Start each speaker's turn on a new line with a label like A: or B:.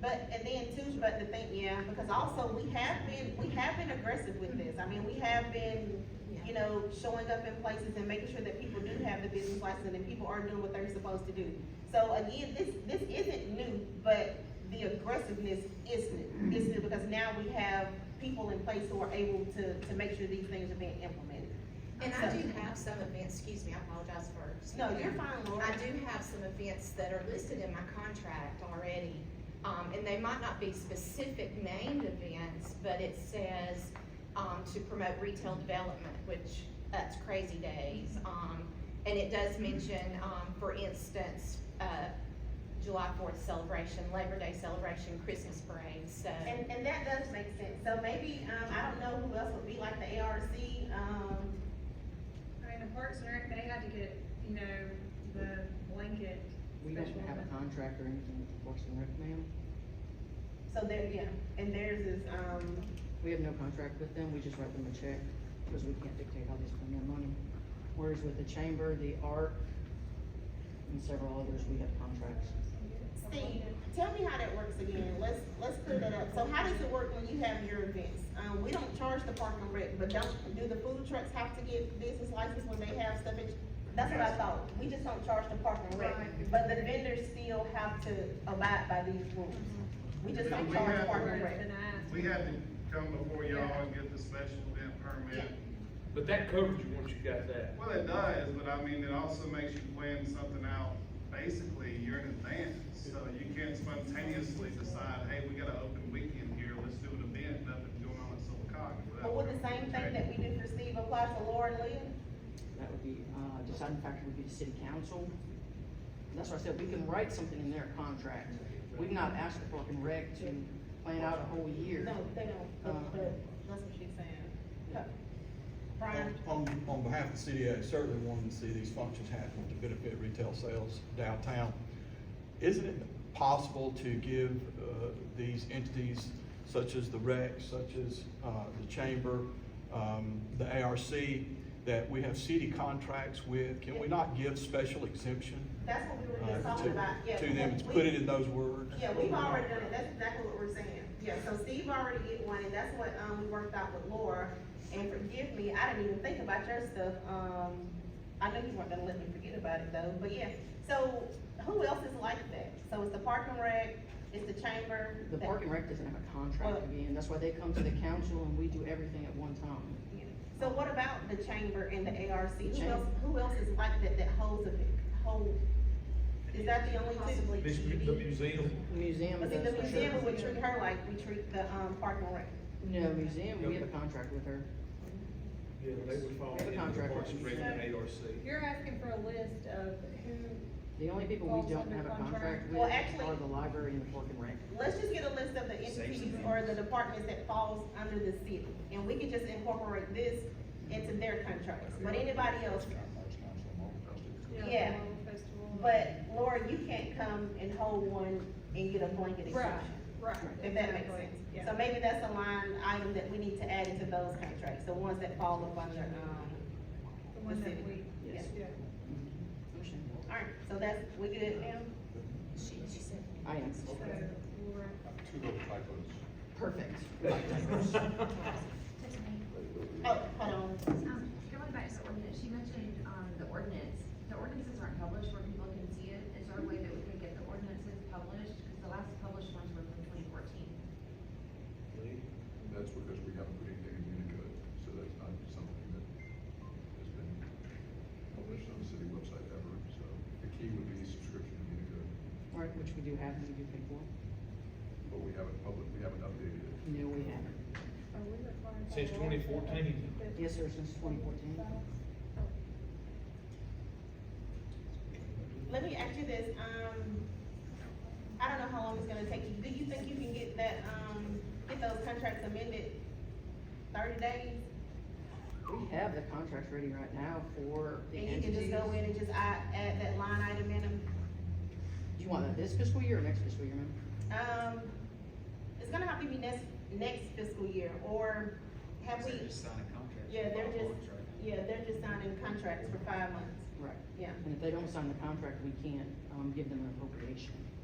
A: But, and then too, but the thing, yeah, because also we have been, we have been aggressive with this. I mean, we have been, you know, showing up in places and making sure that people do have the business license and people are doing what they're supposed to do. So again, this, this isn't new, but the aggressiveness is new. It's new because now we have people in place who are able to, to make sure these things are being implemented.
B: And I do have some events, excuse me, I apologize for.
A: No, you're fine, Laura.
B: I do have some events that are listed in my contract already, um, and they might not be specific named events, but it says, um, to promote retail development, which, that's crazy days, um, and it does mention, um, for instance, uh, July fourth celebration, Labor Day celebration, Christmas parade, so.
A: And, and that does make sense, so maybe, um, I don't know who else would be like the ARC, um,
C: I mean, the Parks and Rec, they had to get, you know, the blanket.
D: We don't
C: special
D: have a
C: event.
D: contract or anything with the Parks and Rec now.
A: so there, yeah, and theirs is, um,
D: We have no contract with them, we just write them a check, because we can't dictate how they spend their money. Whereas with the chamber, the art, and several others, we have contracts.
A: Steve, tell me how that works again, let's, let's clear that up, so how does it work when you have your events? Um, we don't charge the park and rec, but don't, do the food trucks have to get business license when they have stuff? at- That's what I thought, we just don't charge the park and rec,
C: Right.
A: but the vendors still have to abide by these rules. We just don't
E: We
A: charge
E: have-
A: park and
C: It's
A: rec.
C: been asked.
E: We had to come before y'all and get the special event permit.
F: But that covers you once you got that.
E: Well, it does, but I mean, it also makes you plan something out, basically, you're in advance. So you can't spontaneously decide, hey, we got an open weekend here, let's do an event, nothing's going on at Silicon.
A: But would the same thing that we do for Steve apply to Laura and Leah?
D: That would be, uh, deciding factor would be the city council. And That's why I said, we can write something in their contract. We've not asked the Park and Rec to plan out a whole year.
A: No, they don't, but, but that's what she's saying. Brian?
G: On, on behalf of the city, I certainly wanted to see these functions happen to benefit retail sales downtown. Isn't it possible to give, uh, these entities such as the rec, such as, uh, the chamber, um, the ARC, that we have city contracts with? Can we not give special exemption,
A: That's what we were just
G: uh,
A: talking about, yeah.
G: to, to them,
A: we-
G: put it in those words?
A: Yeah, we've already done it, that's exactly what we're saying, yeah, so Steve already did one, and that's what, um, we worked out with Laura, and forgive me, I didn't even think about your stuff, um, I know you weren't gonna let me forget about it though, but yeah, so, who else is like that? So it's the parking rec, it's the chamber.
D: The
A: that-
D: Park and Rec doesn't have a contract
A: Well-
D: to be in, that's why they come to the council and we do everything at one time.
A: yeah. So what about the chamber and the ARC, who
D: Chamber.
A: else, who else is like that, that holds a, hold, is that the only two?
B: Possibly
F: This-
B: TV.
F: The museum,
D: The Museum
A: But see, the
D: does for sure.
A: museum would treat her like we treat the, um, parking rec.
D: No, museum, we have a contract with her.
F: yeah, they would fall
D: They have a
F: into
D: contract
F: Parks
D: with
F: and Rec
C: them.
F: and ARC.
C: You're asking for a list of who,
D: The only people we
C: Falls
D: don't
C: under
D: have a
C: contract.
D: contract with
A: Well, actually-
D: are the library and the Park and Rec.
A: Let's just get a list of the entities or the departments that falls under the city, and we can just incorporate this into their contracts, but anybody else.
C: you know, the
A: Yeah.
C: Marvel festival.
A: But Laura, you can't come and hold one and get a blanket
C: Right,
A: exemption,
C: right.
A: if that makes
C: exactly,
A: sense.
C: yeah.
A: So maybe that's a line item that we need to add into those contracts, the ones that fall up under, um,
C: The one that we,
A: yeah.
D: Yes.
C: yeah.
D: Understand.
A: Alright, so that's, we good now?
B: She, she said.
D: I am.
C: So, Laura,
H: Two little typos.
D: Perfect.
A: Oh, hold on.
I: Um, Going back to the ordinance, she mentioned, um, the ordinance, the ordinances aren't published where people can see it, is there a way that we can get the ordinances published? Because the last published ones were from twenty fourteen.
H: That's because we haven't put anything in Unicode, so that's not something that has been published on the city website ever, so the key would be subscription to Unicode,
D: Right, which we do have, and we do pay for.
H: but we haven't public, we haven't updated it.
D: No, we haven't.
C: are we required? by
F: Since
C: law to
F: 2014.
C: update
D: Yes, sir, since twenty fourteen.
C: Oh,
A: Let me ask you this, um, I don't know how long it's gonna take you, do you think you can get that, um, get those contracts amended thirty days?
D: We have the contracts ready right now for the
A: And you can just
D: entities.
A: go in and just add, add that line item in them?
D: Do you want that this fiscal year or next fiscal year, ma'am?
A: Um, it's gonna have to be next, next fiscal year, or have we? Just signing contracts. Yeah, they're just, yeah, they're just signing contracts for five months,
D: Right.
A: yeah.
D: And if they don't sign the contract, we can't, um, give them an appropriation.